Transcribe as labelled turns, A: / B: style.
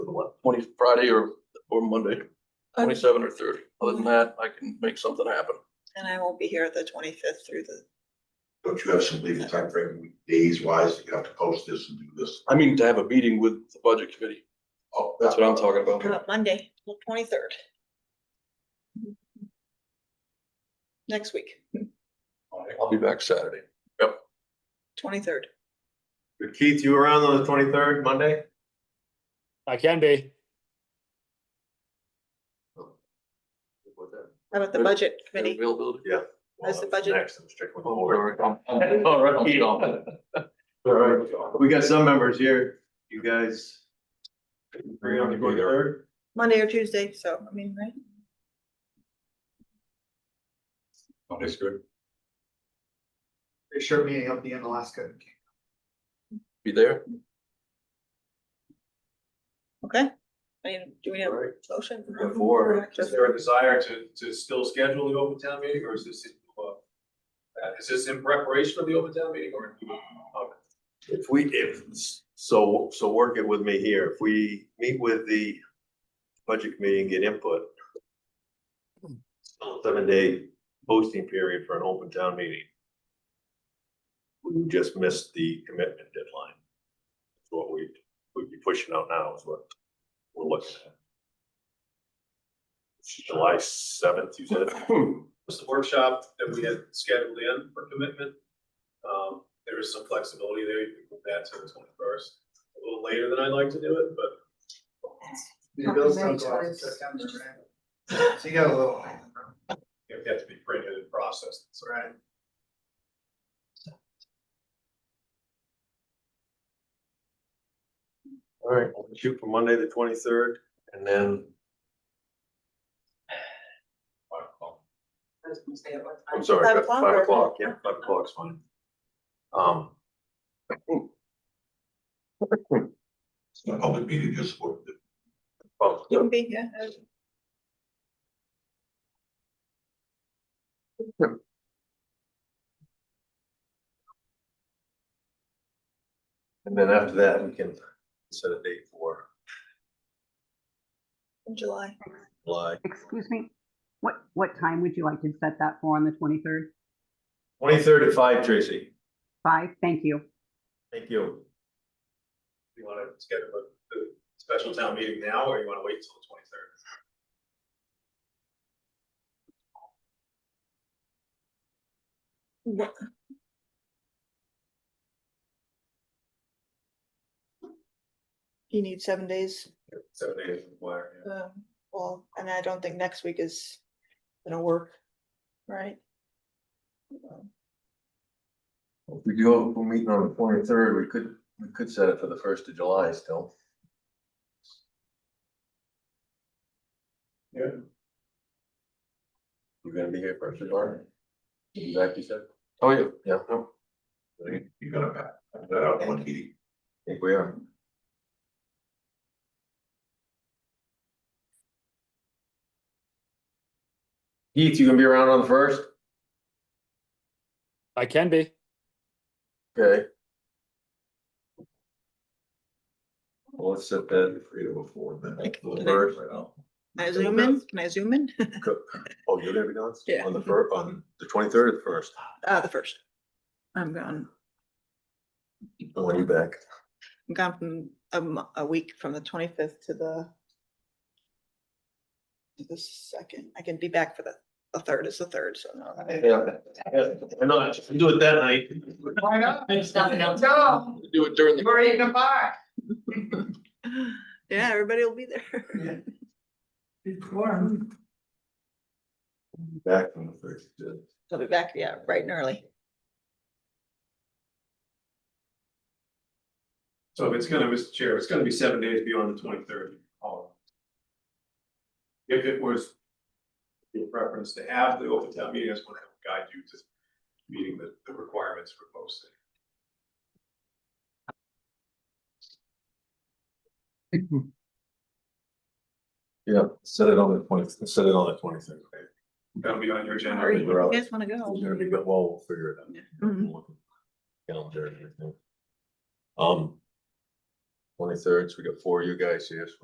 A: twenty, Friday or, or Monday, twenty-seven or thirty. Other than that, I can make something happen.
B: And I won't be here the twenty-fifth through the,
C: Don't you have some legal timeframe, days wise, that you have to post this and do this?
A: I mean, to have a meeting with the budget committee,
C: Oh,
A: that's what I'm talking about.
B: uh, Monday, the twenty-third. Next week,
A: I'll be back Saturday.
B: twenty-third.
D: Keith, you around on the twenty-third, Monday?
E: I can be.
B: How about the
A: Good.
B: budget committee?
A: Availability.
B: That's the budget.
D: Next, I'm strictly
A: Oh,
D: board.
A: sorry, I'm- I'm-
D: All right.
A: I'm gone.
D: All right, we got some members here, you guys. Agree on the
C: Be there.
D: 23rd?
B: Monday or Tuesday, so, I mean, right?
C: Monday's good.
F: They sure meeting up in Alaska.
A: Be there.
B: Okay. I mean, do we have
D: All right.
B: a motion?
D: Got four.
B: Just-
G: Is there a desire to, to still schedule the open town meeting, or is this, in, uh, uh, is this in preparation of the open town meeting, or?
D: If we, if, so, so work it with me here, if we meet with the budget committee and get input. still a Seven day posting period for an open town meeting. We just missed the commitment deadline. That's What we, we'd be pushing out now is what we're looking at. It's July seventh, you said,
A: Hmm.
G: Was the workshop that we had scheduled in for commitment? Um, there is some flexibility there, you can move that to the twenty-first, a little later than I'd like to do it, but
F: The bills don't go out in September, right? So you got a little.
G: it has to be printed and processed, so.
F: Right.
D: all right, we'll shoot for Monday, the twenty-third, and then I'm sorry,
B: Five
D: that's
B: o'clock
D: five
B: or-
D: o'clock, yeah, five o'clock's fine. Um,
A: Hmm.
C: It's not a public meeting, just for the
D: well,
B: You can be, yeah. uh,
D: and then after that, we can set a date for
B: In July.
D: July.
H: Excuse me, what, what time would you like to set that for on the twenty-third?
D: Twenty-third at five, Tracy.
H: Five, thank you.
D: Thank you.
G: You wanna schedule a, a special town meeting now, or you wanna wait till the twenty-third?
B: What- You need seven days,
G: Seven days required, yeah.
B: um, well, and I don't think next week is gonna work, Um, right?
D: If we do, if we're meeting on the twenty-third, we could, we could set it for the first of July still.
G: Yeah.
D: You're gonna be here first of July? You back, you said?
A: Oh, yeah.
D: Yeah, I
C: You gotta back that out in one meeting.
D: think we are. Keith, you gonna be around on the first?
E: I can be.
D: Okay. Well, let's set that
C: Afraid of before then.
B: Like,
D: for the
B: Okay.
D: first.
B: Can I zoom in? Can I zoom in?
D: Oh, you're gonna be gone?
B: Yeah.
D: On the first, on the twenty-third at first,
B: Uh, the first. I'm gone,
D: and when you back,
B: I'm gone from a mo- a week from the twenty-fifth to the to the second, I can be back for the, the third is the third, so no. I-
D: I know, I should do it that night.
F: Why not?
H: There's nothing else.
F: No,
A: Do it during the.
F: we're eating a pie.
B: Yeah, everybody will be there.
D: Back on the first. uh,
B: I'll be back, yeah, bright and early.
G: So if it's gonna, Mr. Chair, it's gonna be seven days beyond the twenty-third. If it was your preference to have the open town meeting, I just wanna guide you to meeting the, the requirements for posting.
D: Yeah, set it on the twenty, set it on the twenty-third.
G: That'll be on your agenda.
B: Alright,
D: we're
B: You
D: out.
B: guys wanna go?
D: We're gonna be, but well, we'll figure it out.
B: Mhm.
D: We'll look at the Calendar and everything. Um. Twenty-third, so we got four of you guys here, so